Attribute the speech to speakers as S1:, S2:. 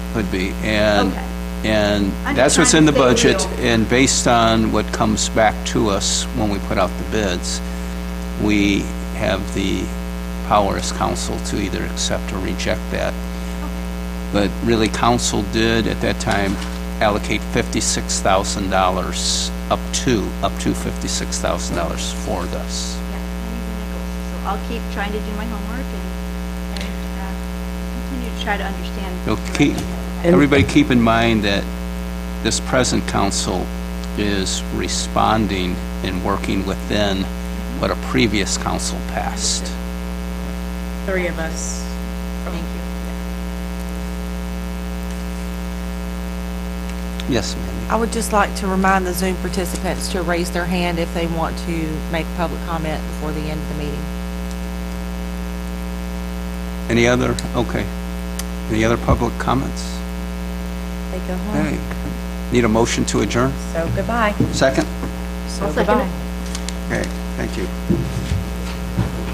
S1: would be, and,
S2: Okay.
S1: and
S2: I'm
S1: that's what's
S2: trying
S1: in
S2: to
S1: the
S2: stay
S1: budget,
S2: real.
S1: and based on what comes back to us when we put out the bids, we have the power as council to either accept or reject that. But really, council did at that time allocate fifty-six thousand dollars, up to, up to fifty-six thousand dollars for this.
S2: Yeah, I need the nickels. So I'll keep trying to do my homework and, and, uh, continue to try to understand.
S1: So keep, everybody keep in mind that this present council is responding and working within what a previous council passed.
S3: three of us.
S2: Thank you.
S1: Yes, ma'am.
S4: I would just like to remind the Zoom participants to raise their hand if they want to make public comment before the end of the meeting.
S1: Any other, okay. Any other public comments?
S3: They go home,
S1: Hey, need a motion to adjourn?
S3: so goodbye.
S1: Second?
S3: So
S2: I'll second it.
S1: Okay, thank you.